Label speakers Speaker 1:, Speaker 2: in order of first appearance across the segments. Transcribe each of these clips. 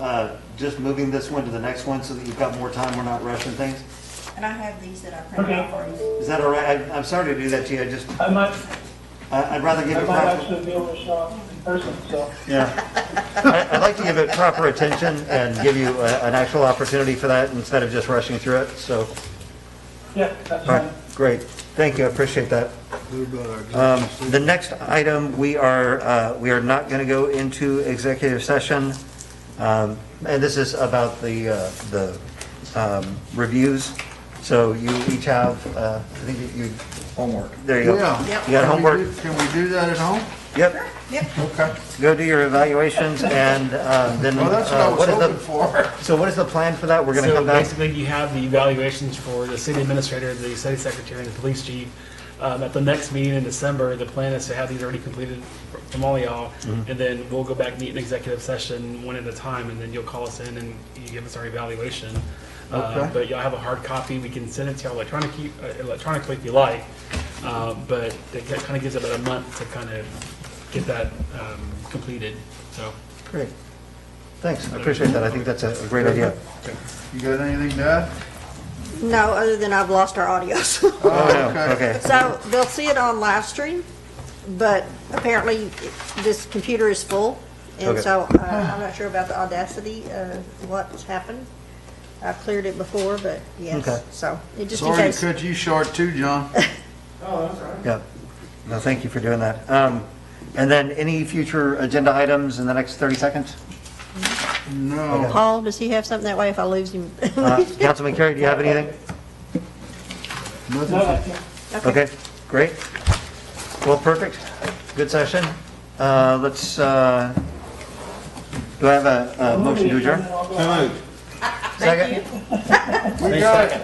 Speaker 1: uh, just moving this one to the next one so that you've got more time, we're not rushing things?
Speaker 2: And I have these that I printed out for you.
Speaker 1: Is that all right? I- I'm sorry to do that to you, I just,
Speaker 3: I might,
Speaker 1: I- I'd rather give
Speaker 3: I
Speaker 1: it
Speaker 3: might
Speaker 1: proper.
Speaker 3: actually be able to show up in person, so.
Speaker 1: Yeah. I- I'd like to give it proper attention and give you a- an actual opportunity for that instead of just rushing through it, so,
Speaker 3: Yeah, that's
Speaker 1: all right,
Speaker 3: fine.
Speaker 1: great. Thank you, I appreciate that. Um, The next item, we are, uh, we are not going to go into executive session. Um, And this is about the, uh, the um, reviews. So you each have, uh, I think you, homework. There you go.
Speaker 4: Yeah.
Speaker 1: You got homework.
Speaker 4: Can we do that at home?
Speaker 1: Yep,
Speaker 2: Yep.
Speaker 4: Okay.
Speaker 1: go do your evaluations and uh, then.
Speaker 4: Well, that's what
Speaker 1: uh,
Speaker 4: I was
Speaker 1: is
Speaker 4: hoping
Speaker 1: the
Speaker 4: for.
Speaker 1: So what is the plan for that? We're going to
Speaker 5: So
Speaker 1: come back?
Speaker 5: basically, you have the evaluations for the city administrator, the city secretary, and the police chief. Um, At the next meeting in December, the plan is to have these already completed from all y'all,
Speaker 1: Mm-hmm.
Speaker 5: and then we'll go back, meet in executive session, one at a time, and then you'll call us in and you give us our evaluation. Uh,
Speaker 4: Okay.
Speaker 5: But y'all have a hard copy, we can send it to y'all electronically, uh, electronically if you like, Uh, but it kind of gives about a month to kind of get that um, completed, so.
Speaker 1: Great. Thanks, I appreciate that. I think that's a a great idea.
Speaker 4: You got anything to add?
Speaker 2: No, other than I've lost our audios.
Speaker 1: Oh, no, Okay.
Speaker 2: So they'll see it on live stream, but apparently this computer is full. And
Speaker 1: Okay.
Speaker 2: so uh, I'm not sure about the audacity of what's happened. I cleared it before, but
Speaker 1: Okay.
Speaker 2: yes, so it just in
Speaker 4: Sorry to
Speaker 2: case.
Speaker 4: cut you short too, John.
Speaker 1: Yeah, no, thank you for doing that. Um, And then any future agenda items in the next 30 seconds?
Speaker 4: No.
Speaker 2: Paul, does he have something that way if I lose him?
Speaker 1: Uh, Councilman Carey, do you have anything?
Speaker 3: No,
Speaker 4: Nothing.
Speaker 3: that's it.
Speaker 1: Okay, great. Well, perfect, good session. Uh, Let's, uh, do I have a a motion to adjourn?
Speaker 2: Thank you.
Speaker 4: We got it.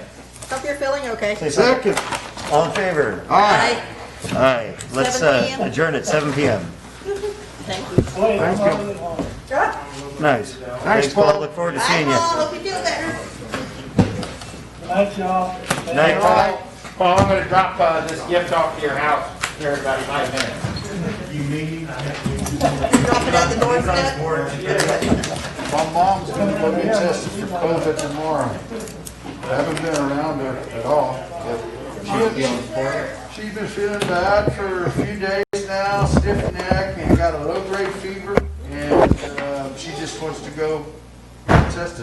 Speaker 2: Hope you're feeling okay.
Speaker 1: Say second.
Speaker 4: Second.
Speaker 1: All in favor?
Speaker 4: All right.
Speaker 2: Bye.
Speaker 1: Aye. Let's
Speaker 2: 7
Speaker 1: uh,
Speaker 2: p.m.
Speaker 1: adjourn at 7 PM.
Speaker 2: Thank you.
Speaker 3: Wait, I'm
Speaker 4: Thank you.
Speaker 3: already home.
Speaker 1: Nice. Thanks,
Speaker 4: Paul.
Speaker 1: Paul, look forward to seeing you.
Speaker 2: Bye, Paul. Hope you feel better.
Speaker 3: Good night, y'all.
Speaker 1: Night, Paul.
Speaker 6: Paul, I'm gonna drop uh, this gift off to your house here in about five minutes.
Speaker 2: Drop it at the doorstep.
Speaker 4: My mom's gonna go get tested for COVID tomorrow. I haven't been around her at all. but She's been feeling bad for a few days now, stiff neck, and got a low-grade fever, and uh, she just wants to go get tested.